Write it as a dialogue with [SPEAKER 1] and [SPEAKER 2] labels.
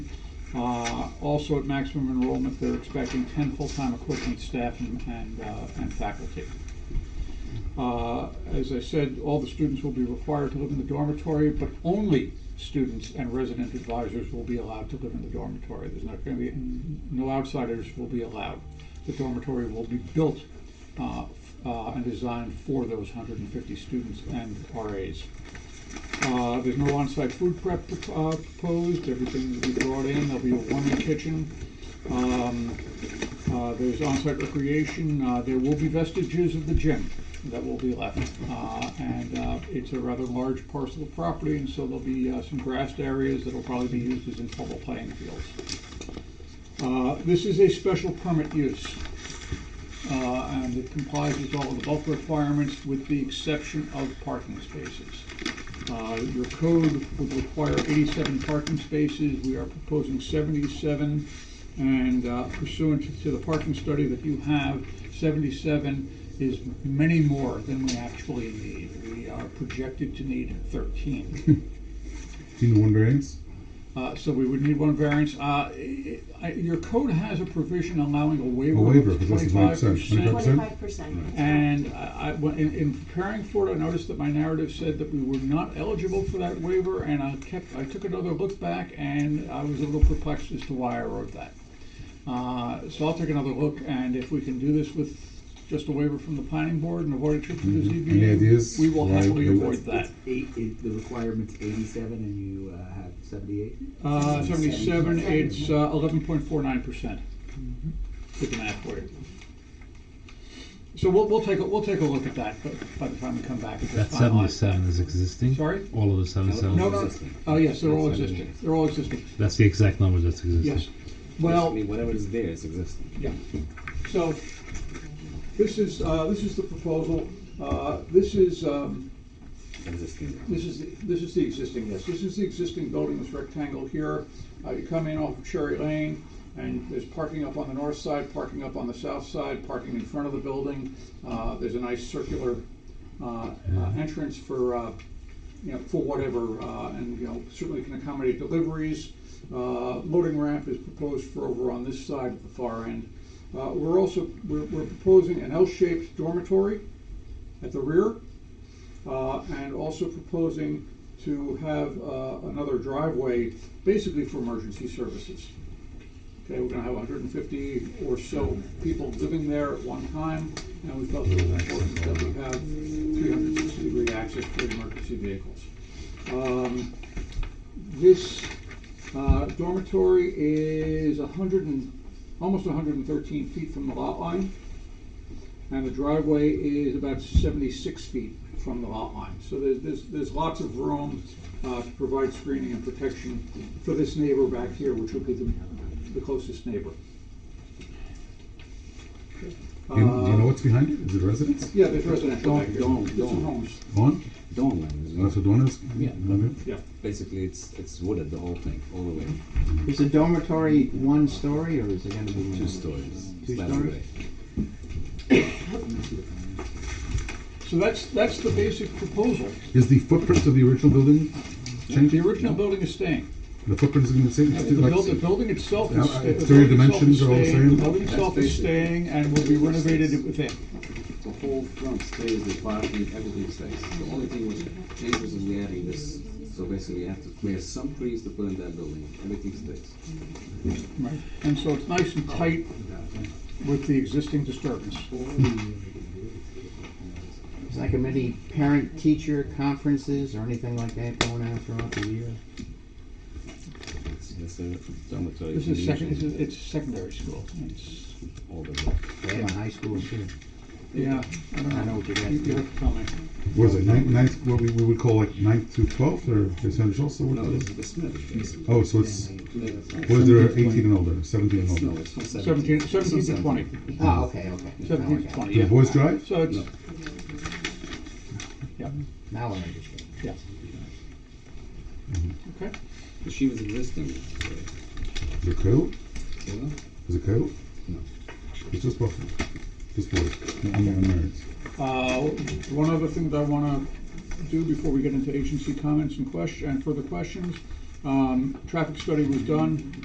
[SPEAKER 1] Uh, Also at maximum enrollment, they're expecting ten full-time equivalent staff and, and, uh, and faculty. Uh, As I said, all the students will be required to live in the dormitory, but only students and resident advisors will be allowed to live in the dormitory. There's not going to be, no outsiders will be allowed. The dormitory will be built uh, f- uh, and designed for those 150 students and RAs. Uh, There's no on-site food prep uh, proposed, everything will be brought in, there'll be a warming kitchen. Um, uh, There's on-site recreation, Uh, there will be vestiges of the gym that will be left. Uh, And uh, it's a rather large parcel of property, and so there'll be uh, some grassed areas that'll probably be used as informal playing fields. Uh, This is a special permit use, uh, and it complies with all of the bulk requirements with the exception of parking spaces. Uh, Your code would require 87 parking spaces. We are proposing 77. And uh, pursuant to- to the parking study that you have, 77 is many more than we actually need. We are projected to need 13.
[SPEAKER 2] Do you know one variance?
[SPEAKER 1] Uh, So we would need one variance. Uh, i- i- Your code has a provision allowing a
[SPEAKER 2] A
[SPEAKER 1] waiver
[SPEAKER 2] waiver,
[SPEAKER 1] of
[SPEAKER 2] because that's 25%,
[SPEAKER 1] 25%.
[SPEAKER 2] 25%.
[SPEAKER 3] Twenty-five percent.
[SPEAKER 1] And I, I- when- in, in preparing for it, I noticed that my narrative said that we were not eligible for that waiver, and I kept, I took another look back, and I was a little perplexed as to why I wrote that. Uh, so I'll take another look, and if we can do this with just a waiver from the planning board and avoid a trip to the
[SPEAKER 2] Mhm. Any ideas
[SPEAKER 1] ZBA, we will
[SPEAKER 2] why
[SPEAKER 1] happily
[SPEAKER 2] we-
[SPEAKER 1] avoid that.
[SPEAKER 4] It's eight, it, the requirement's eighty-seven and you uh, have seventy-eight?
[SPEAKER 1] Uh, seventy-seven, it's uh, eleven point four nine percent. Did the math for you. So we'll, we'll take, a we'll take a look at that, but by the time we come back, it's
[SPEAKER 5] That
[SPEAKER 1] finalized.
[SPEAKER 5] seventy-seven is existing?
[SPEAKER 1] Sorry?
[SPEAKER 5] All of the seventy-seven?
[SPEAKER 1] No, no,
[SPEAKER 4] Existing.
[SPEAKER 1] oh, yes, they're all
[SPEAKER 4] That's what I mean.
[SPEAKER 1] existing, they're all existing,
[SPEAKER 5] That's the exact number that's existing?
[SPEAKER 1] yes. Well,
[SPEAKER 4] Basically, whatever is there is existing.
[SPEAKER 1] yeah, so, this is, uh, this is the proposal, uh, this is, um,
[SPEAKER 4] Existing.
[SPEAKER 1] This is, the- this is the existing, yes, this is the existing building, this rectangle here. Uh, you come in off of Cherry Lane, and there's parking up on the north side, parking up on the south side, parking in front of the building. Uh, there's a nice circular, uh, uh, entrance for, uh, you know, for whatever, uh, and, you know, certainly can accommodate deliveries. Uh, loading ramp is proposed for over on this side at the far end. Uh, we're also, we're, we're proposing an L-shaped dormitory at the rear uh, and also proposing to have uh, another driveway, basically for emergency services. Okay, we're gonna have 150 or so people living there at one time, and we felt it was important that we have 360 degree access for emergency vehicles. Um, This uh, dormitory is 100 and, almost 113 feet from the lot line. And the driveway is about seventy-six feet from the lot line. So there's, there's, there's lots of room, uh, to provide screening and protection for this neighbor back here, which would be the, the closest neighbor.
[SPEAKER 2] Do you, do you know
[SPEAKER 1] Uh,
[SPEAKER 2] what's behind it? Is it residence?
[SPEAKER 1] Yeah, there's residential back here.
[SPEAKER 6] Don't- don't-
[SPEAKER 1] It's
[SPEAKER 6] don't.
[SPEAKER 1] homes,
[SPEAKER 2] Dawn?
[SPEAKER 6] Dome land is
[SPEAKER 2] That's
[SPEAKER 6] what-
[SPEAKER 2] what Dawn is?
[SPEAKER 6] Yeah.
[SPEAKER 2] Okay.
[SPEAKER 1] yeah.
[SPEAKER 6] basically it's it's wooded the whole thing all the way.
[SPEAKER 4] Is the dormitory one story or is it gonna be?
[SPEAKER 6] Two stories.
[SPEAKER 4] Two
[SPEAKER 6] flat
[SPEAKER 4] stories?
[SPEAKER 6] array.
[SPEAKER 1] So that's, that's the basic proposal.
[SPEAKER 2] Is the footprint of the original building changed?
[SPEAKER 1] The original building is staying.
[SPEAKER 2] The footprint is going to stay?
[SPEAKER 1] The
[SPEAKER 2] it's like-
[SPEAKER 1] buil- the building itself is.
[SPEAKER 2] Yeah,
[SPEAKER 1] sta- the
[SPEAKER 2] it's three
[SPEAKER 1] building itself is
[SPEAKER 2] dimensions are all the
[SPEAKER 1] staying,
[SPEAKER 2] same.
[SPEAKER 1] The building itself is staying and will be renovated within.
[SPEAKER 6] The whole front stays, the parking, everything stays. The only thing which changes is we're adding this. So basically, you have to clear some trees to put in that building. Everything stays.
[SPEAKER 1] Right, and so it's nice and tight with the existing disturbance.
[SPEAKER 4] It's like a many parent-teacher conferences or anything like that going on throughout the year?
[SPEAKER 6] It's, it's a dormitory.
[SPEAKER 1] This is second, it's,
[SPEAKER 6] condition,
[SPEAKER 1] it's secondary school. It's,
[SPEAKER 6] all the way.
[SPEAKER 4] They have a high school too.
[SPEAKER 1] yeah, I
[SPEAKER 4] I
[SPEAKER 1] don't
[SPEAKER 4] know
[SPEAKER 1] know.
[SPEAKER 4] what you're
[SPEAKER 1] You you
[SPEAKER 4] asking.
[SPEAKER 1] have to tell me.
[SPEAKER 2] What is it, ninth, ninth, what we, we would call like ninth to twelfth or percentage also? What
[SPEAKER 6] No, this
[SPEAKER 2] is it?
[SPEAKER 6] is the Smith. basically.
[SPEAKER 2] Oh, so it's,
[SPEAKER 6] No,
[SPEAKER 2] what is there, eighteen and older, seventeen and older?
[SPEAKER 6] it's from
[SPEAKER 1] Seventeen, seventeen to twenty,
[SPEAKER 4] Oh, okay, okay. Now I
[SPEAKER 1] seventeen to
[SPEAKER 4] got it.
[SPEAKER 1] twenty,
[SPEAKER 2] Does
[SPEAKER 1] yeah.
[SPEAKER 2] Boys Drive?
[SPEAKER 1] So it's,
[SPEAKER 4] Now I understand.
[SPEAKER 1] yeah. Okay,
[SPEAKER 6] She was existing.
[SPEAKER 2] Is it Coyote?
[SPEAKER 6] You know?
[SPEAKER 2] Is it Coyote?
[SPEAKER 6] No.
[SPEAKER 2] It's just Buffalo. Just Boys, no unmarrieds.
[SPEAKER 1] uh, one other thing that I wanna do before we get into agency comments and question, and further questions. Um, traffic study was done,